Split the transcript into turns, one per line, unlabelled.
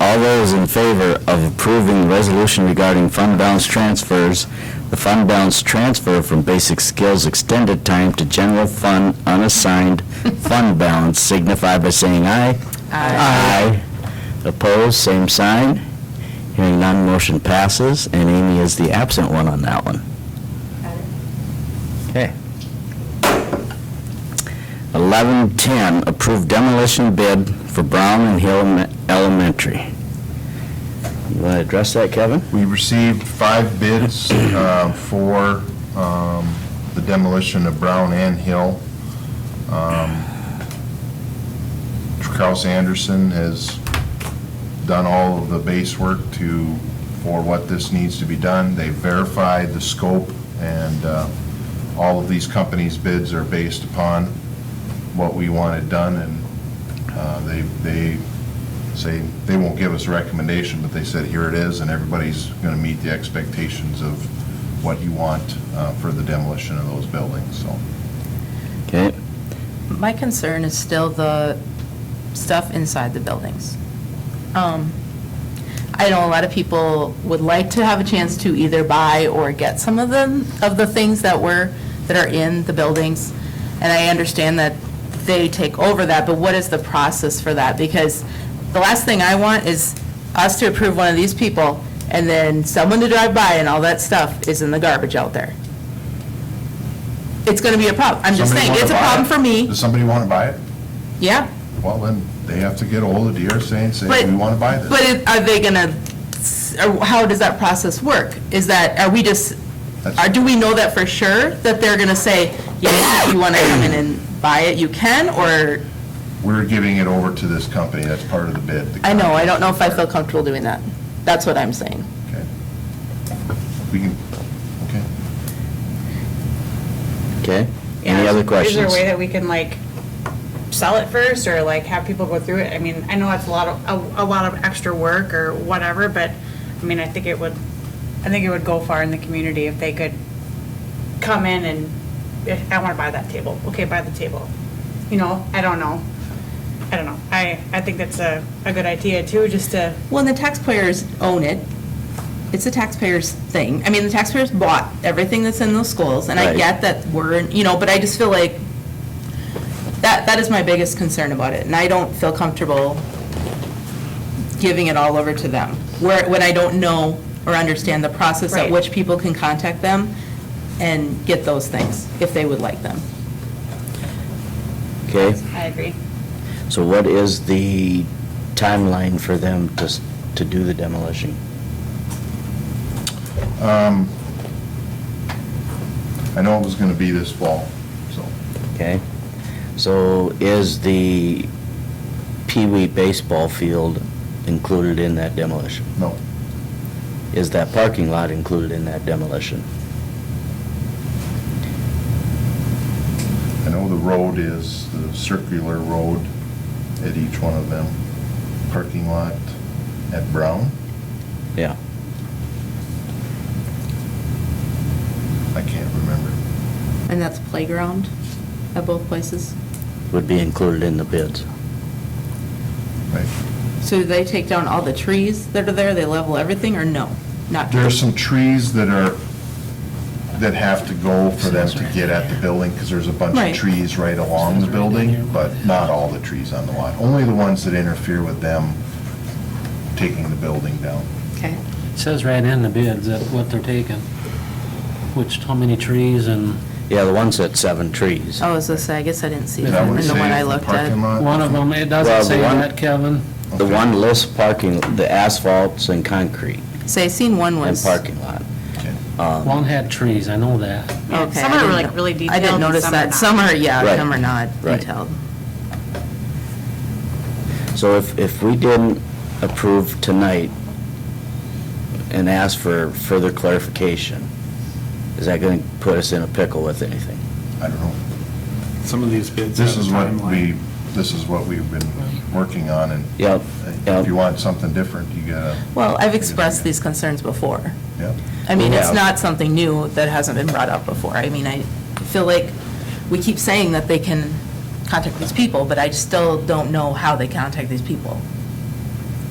All those in favor of approving the resolution regarding fund balance transfers, the fund balance transfer from basic skills extended time to general fund unassigned fund balance signify by saying aye. Aye. Opposed, same sign. Hearing none, motion passes, and Amy is the absent one on that one. Okay. 1110, approve demolition bid for Brown and Hill Me- Elementary. You want to address that, Kevin?
We received five bids uh, for um, the demolition of Brown and Hill. Um, Kraus Anderson has done all of the base work to, for what this needs to be done. They verified the scope, and uh, all of these companies' bids are based upon what we wanted done, and uh, they, they say, they won't give us a recommendation, but they said, here it is, and everybody's going to meet the expectations of what you want uh, for the demolition of those buildings, so.
Okay,
My concern is still the stuff inside the buildings. Um, I know a lot of people would like to have a chance to either buy or get some of them, of the things that were, that are in the buildings. And I understand that they take over that, but what is the process for that? Because the last thing I want is us to approve one of these people and then someone to drive by and all that stuff is in the garbage out there. It's going to be a problem. I'm just
Somebody
saying,
wanna
it's a
buy
problem
it?
for me.
Does somebody want to buy it?
Yeah,
Well, then, they have to get ahold of DRC and say,
But-
we want to buy this.
but it- are they gonna, s- or how does that process work? Is that, are we just,
That's-
are, do we know that for sure, that they're gonna say, yes, if you wanna come in and buy it, you can, or,
We're giving it over to this company, that's part of the bid. The
I know, I don't know if I feel comfortable doing that. That's what I'm saying.
Okay. We can, okay.
okay.
Yeah,
Any other
Is there a
questions?
way that we can like sell it first or like have people go through it? I mean, I know it's a lot of, a, a lot of extra work or whatever, but I mean, I think it would, I think it would go far in the community if they could come in and, "Eh, I want to buy that table. Okay, buy the table. You know, I don't know. I don't know. I, I think that's a, a good idea too, just to,
Well, the taxpayers own it. It's the taxpayers' thing. I mean, the taxpayers bought everything that's in those schools, and I
Right.
get that we're, you know, but I just feel like that, that is my biggest concern about it, and I don't feel comfortable giving it all over to them, where, when I don't know or understand the process at
Right.
which people can contact them and get those things, if they would like them.
Okay,
I agree.
so what is the timeline for them to, s- to do the demolition?
Um, I know it was going to be this fall, so.
Okay, so is the Pee Wee baseball field included in that demolition?
No,
Is that parking lot included in that demolition?
I know the road is the circular road at each one of them. Parking lot at Brown.
Yeah.
I can't remember.
And that's playground at both places?
Would be included in the bids.
Right.
So do they take down all the trees that are there, they level everything, or no? Not
There are some trees that are, that have to go for them to get at the building, because there's a bunch
Right.
of trees right along the building, but not all the trees on the lot. Only the ones that interfere with them taking the building down.
Okay.
It Says right in the bids that what they're taking, which, how many trees and
Yeah, the one's at seven trees.
Oh, so I guess I didn't see
Yeah,
that
That
in
would
the
save
one I
the
looked
parking
at.
lot.
one of them, it
Well,
doesn't
the
say
one-
that, Kevin.
The
Okay.
one lists parking, the asphalts and concrete
So I seen one
and
was.
parking lot.
Okay.
Um,
One had trees, I know that.
Yeah,
Okay,
some
I
are
didn't
like
know-
really
I
detailed
didn't
and
notice
some are
that.
not.
Some are, yeah,
Right.
some are not
Right.
detailed.
So if, if we didn't approve tonight and ask for further clarification, is that going to put us in a pickle with anything?
I don't know.
Some of these bids
This
have a
is what we,
timeline.
this is what we've been working on, and
Yep,
if
yep.
you want something different, you gotta,
Well, I've expressed these concerns before.
yeah.
I mean, it's
Yeah.
not something new that hasn't been brought up before. I mean, I feel like we keep saying that they can contact these people, but I still don't know how they contact these people.